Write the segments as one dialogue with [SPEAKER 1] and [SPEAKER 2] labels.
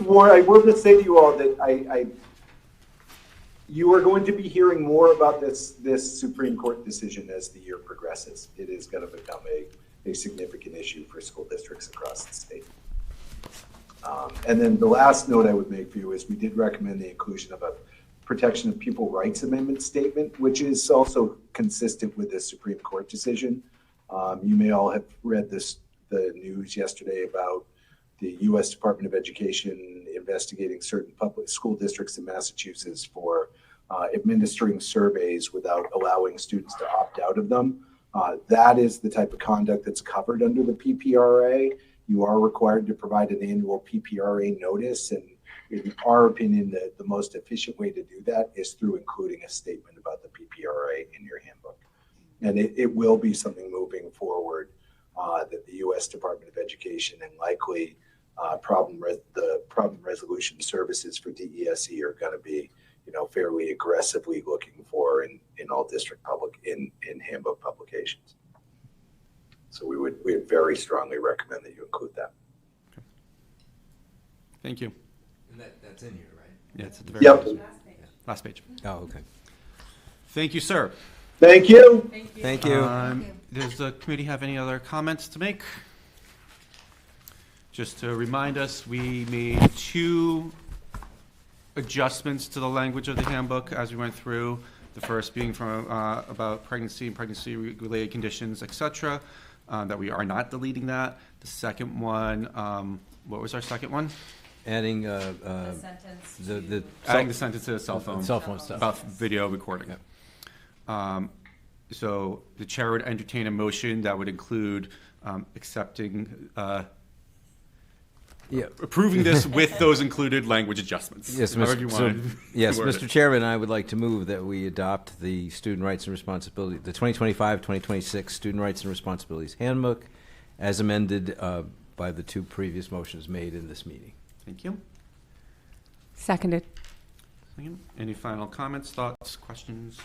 [SPEAKER 1] more, I will just say to you all that I, I, you are going to be hearing more about this, this Supreme Court decision as the year progresses. It is going to become a, a significant issue for school districts across the state. Um, and then the last note I would make for you is we did recommend the inclusion of a protection of people rights amendment statement, which is also consistent with the Supreme Court decision. Um, you may all have read this, the news yesterday about the U.S. Department of Education investigating certain public school districts in Massachusetts for uh, administering surveys without allowing students to opt out of them. Uh, that is the type of conduct that's covered under the PPRA. You are required to provide an annual PPRA notice, and in our opinion, the, the most efficient way to do that is through including a statement about the PPRA in your handbook. And it, it will be something moving forward uh, that the U.S. Department of Education and likely uh, problem res- the problem resolution services for DESE E are going to be, you know, fairly aggressively looking for in, in all district public in in handbook publications. So we would we would very strongly recommend that you include that.
[SPEAKER 2] Thank you.
[SPEAKER 3] And that, that's in here, right?
[SPEAKER 2] Yeah, it's at the very
[SPEAKER 1] Yep.
[SPEAKER 2] last page.
[SPEAKER 3] Oh, okay.
[SPEAKER 2] Thank you, sir.
[SPEAKER 1] Thank you.
[SPEAKER 3] Thank you.
[SPEAKER 2] Um, Does the committee have any other comments to make? Just to remind us, we made two adjustments to the language of the handbook as we went through. The first being from, uh, about pregnancy and pregnancy-related conditions, et cetera, uh, that we are not deleting that. The second one, um, what was our second one?
[SPEAKER 3] Adding, uh, uh,
[SPEAKER 4] The sentence
[SPEAKER 3] the, the.
[SPEAKER 4] to-
[SPEAKER 2] Adding the sentence to the cell phone.
[SPEAKER 3] Cell phone stuff.
[SPEAKER 2] About video recording. Um, So the chair would entertain a motion that would include um, accepting, uh,
[SPEAKER 3] Yeah.
[SPEAKER 2] approving this with those included language adjustments.
[SPEAKER 3] Yes,
[SPEAKER 2] however
[SPEAKER 3] Mr.
[SPEAKER 2] you
[SPEAKER 3] so-
[SPEAKER 2] wanted
[SPEAKER 3] yes,
[SPEAKER 2] to word it.
[SPEAKER 3] Mr. Chairman, I would like to move that we adopt the Student Rights and Responsibility, the 2025-2026 Student Rights and Responsibilities Handbook as amended uh, by the two previous motions made in this meeting.
[SPEAKER 2] Thank you.
[SPEAKER 5] Seconded.
[SPEAKER 2] Any final comments, thoughts, questions?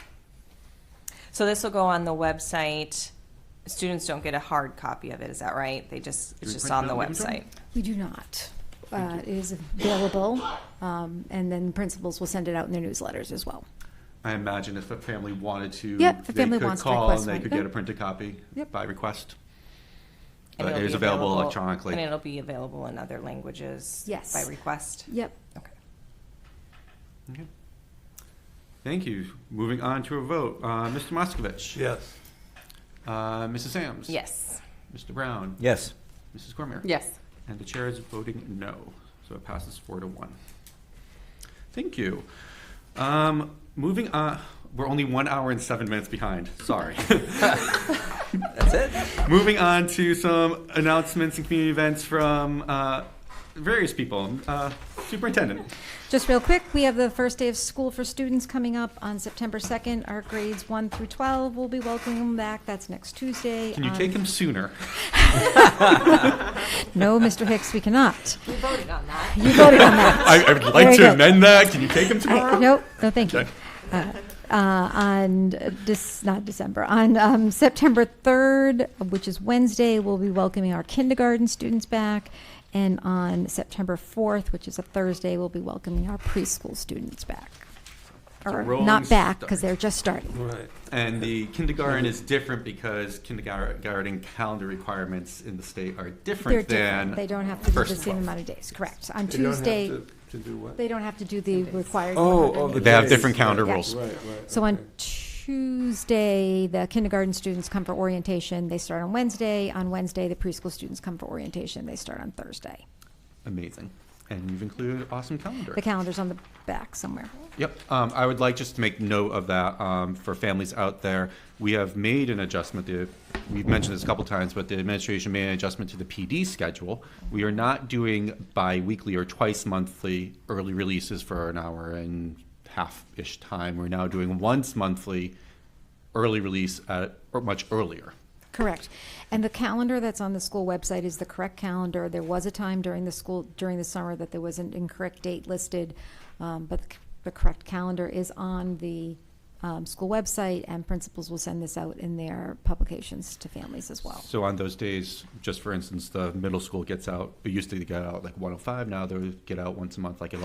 [SPEAKER 4] So this will go on the website. Students don't get a hard copy of it, is that right? They just,
[SPEAKER 2] we
[SPEAKER 4] it's just
[SPEAKER 2] print
[SPEAKER 4] on
[SPEAKER 2] it
[SPEAKER 4] the
[SPEAKER 2] out and give it to
[SPEAKER 4] website.
[SPEAKER 2] 'em?
[SPEAKER 6] We do not. Uh, It is available, um, and then principals will send it out in their newsletters as well.
[SPEAKER 2] I imagine if a family wanted to,
[SPEAKER 6] Yep, if a
[SPEAKER 2] they
[SPEAKER 6] family
[SPEAKER 2] could
[SPEAKER 6] wants to
[SPEAKER 2] call and
[SPEAKER 6] request
[SPEAKER 2] they
[SPEAKER 6] one.
[SPEAKER 2] could get a
[SPEAKER 6] Yep.
[SPEAKER 2] printed copy
[SPEAKER 6] Yep.
[SPEAKER 2] by request.
[SPEAKER 4] And
[SPEAKER 2] But
[SPEAKER 4] it'll
[SPEAKER 2] it is
[SPEAKER 4] be
[SPEAKER 2] available electronically.
[SPEAKER 4] And it'll be available in other languages.
[SPEAKER 6] Yes.
[SPEAKER 4] By request.
[SPEAKER 6] Yep.
[SPEAKER 4] Okay.
[SPEAKER 2] Okay. Thank you. Moving on to a vote. Uh, Mr. Moskovich?
[SPEAKER 7] Yes.
[SPEAKER 2] Uh, Mrs. Sams?
[SPEAKER 4] Yes.
[SPEAKER 2] Mr. Brown?
[SPEAKER 3] Yes.
[SPEAKER 2] Mrs. Cormier?
[SPEAKER 5] Yes.
[SPEAKER 2] And the chair is voting no, so it passes four to one. Thank you. Um, moving on, we're only one hour and seven minutes behind. Sorry.
[SPEAKER 3] That's it?
[SPEAKER 2] moving on to some announcements and community events from uh, various people. Uh, Superintendent.
[SPEAKER 6] Just real quick, we have the first day of school for students coming up on September 2nd. Our grades 1 through 12 will be welcoming them back. That's next Tuesday.
[SPEAKER 2] Can you
[SPEAKER 6] Um,
[SPEAKER 2] take him sooner?
[SPEAKER 6] No, Mr. Hicks, we cannot.
[SPEAKER 4] We voted on that.
[SPEAKER 6] You voted on that.
[SPEAKER 2] I, I would
[SPEAKER 6] There
[SPEAKER 2] like
[SPEAKER 6] you
[SPEAKER 2] to
[SPEAKER 6] go.
[SPEAKER 2] amend that. Can you take him tomorrow?
[SPEAKER 6] Nope, no, thank you.
[SPEAKER 2] Okay.
[SPEAKER 6] Uh, uh, On, this, not December, on um, September 3rd, which is Wednesday, we'll be welcoming our kindergarten students back. And on September 4th, which is a Thursday, we'll be welcoming our preschool students back. Or
[SPEAKER 2] rolling
[SPEAKER 6] not back,
[SPEAKER 2] start.
[SPEAKER 6] because they're just starting.
[SPEAKER 7] Right.
[SPEAKER 2] And the kindergarten is different because kindergarten calendar requirements in the state are
[SPEAKER 6] They're
[SPEAKER 2] different than.
[SPEAKER 6] different. They don't have to do
[SPEAKER 2] first
[SPEAKER 6] the same
[SPEAKER 2] twelve.
[SPEAKER 6] amount of days, correct. On
[SPEAKER 7] They don't have
[SPEAKER 6] Tuesday,
[SPEAKER 7] to- To do what?
[SPEAKER 6] they don't have to do the required.
[SPEAKER 7] Oh,
[SPEAKER 6] 180
[SPEAKER 7] oh, the
[SPEAKER 2] They have
[SPEAKER 7] days.
[SPEAKER 2] different calendar
[SPEAKER 6] Yeah.
[SPEAKER 2] rules.
[SPEAKER 7] Right, right.
[SPEAKER 6] So on
[SPEAKER 7] okay.
[SPEAKER 6] Tuesday, the kindergarten students come for orientation. They start on Wednesday. On Wednesday, the preschool students come for orientation. They start on Thursday.
[SPEAKER 2] Amazing. And you've included an awesome calendar.
[SPEAKER 6] The calendar's on the back somewhere.
[SPEAKER 2] Yep. Um, I would like just to make note of that um, for families out there. We have made an adjustment. The, we've mentioned this a couple times, but the administration made an adjustment to the PD schedule. We are not doing bi-weekly or twice monthly early releases for an hour and half-ish time. We're now doing once monthly early release at, or much earlier.
[SPEAKER 6] Correct. And the calendar that's on the school website is the correct calendar. There was a time during the school, during the summer that there was an incorrect date listed, um, but the c- the correct calendar is on the um, um, school website, and principals will send this out in their publications to families as well.
[SPEAKER 2] So on those days, oh just for instance, the middle school gets out, it used to get out like 105, now they get out once a month, like at